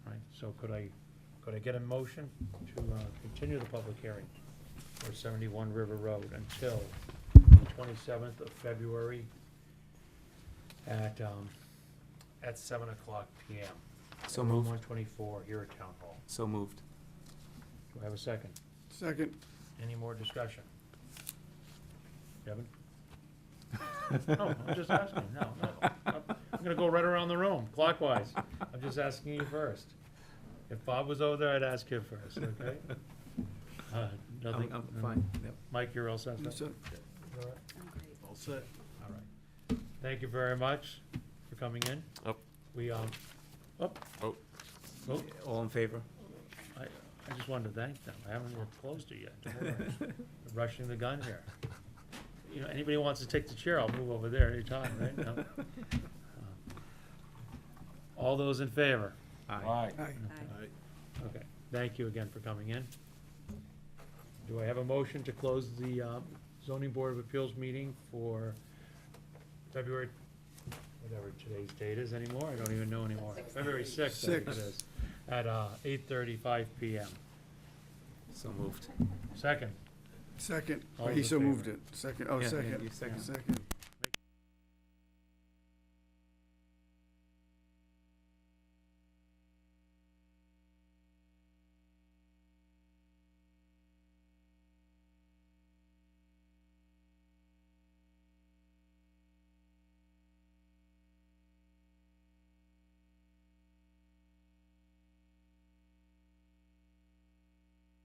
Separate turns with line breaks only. So could I, could I get a motion to uh, continue the public hearing for 71 River Road until the 27th of February at, um, at 7 o'clock PM?
So
Room
moved,
124 here at Town Hall.
so moved.
Do I have a second?
Second.
Any more discussion? Kevin? No, I'm just asking, no, no. I'm I'm gonna go right around the room clockwise. I'm just asking you first. If Bob was over there, I'd ask him first, okay? Uh, Nothing? Oh.
I'm, I'm Um, fine, yep.
Mike, you're all set?
Yes, sir.
All right.
All set.
All right. Thank you very much for coming in.
Up.
We, um, up.
Oh.
Oh,
All in favor?
I, I just wanted to thank them. I haven't even closed it yet. They're Rushing the gun here. You know, anybody wants to take the chair, I'll move over there anytime, right? No? All those in favor?
Aye.
Aye.
Okay, thank you again for coming in. Do I have a motion to close the um, zoning board of appeals meeting for February, whatever today's date is anymore, I don't even know anymore. February sixth, I think it
Six.
is, at uh, eight thirty-five PM.
So moved.
Second,
Second.
All
He
in
so
favor?
moved it. Second, oh,
Yeah, yeah,
second.
you second.
Second.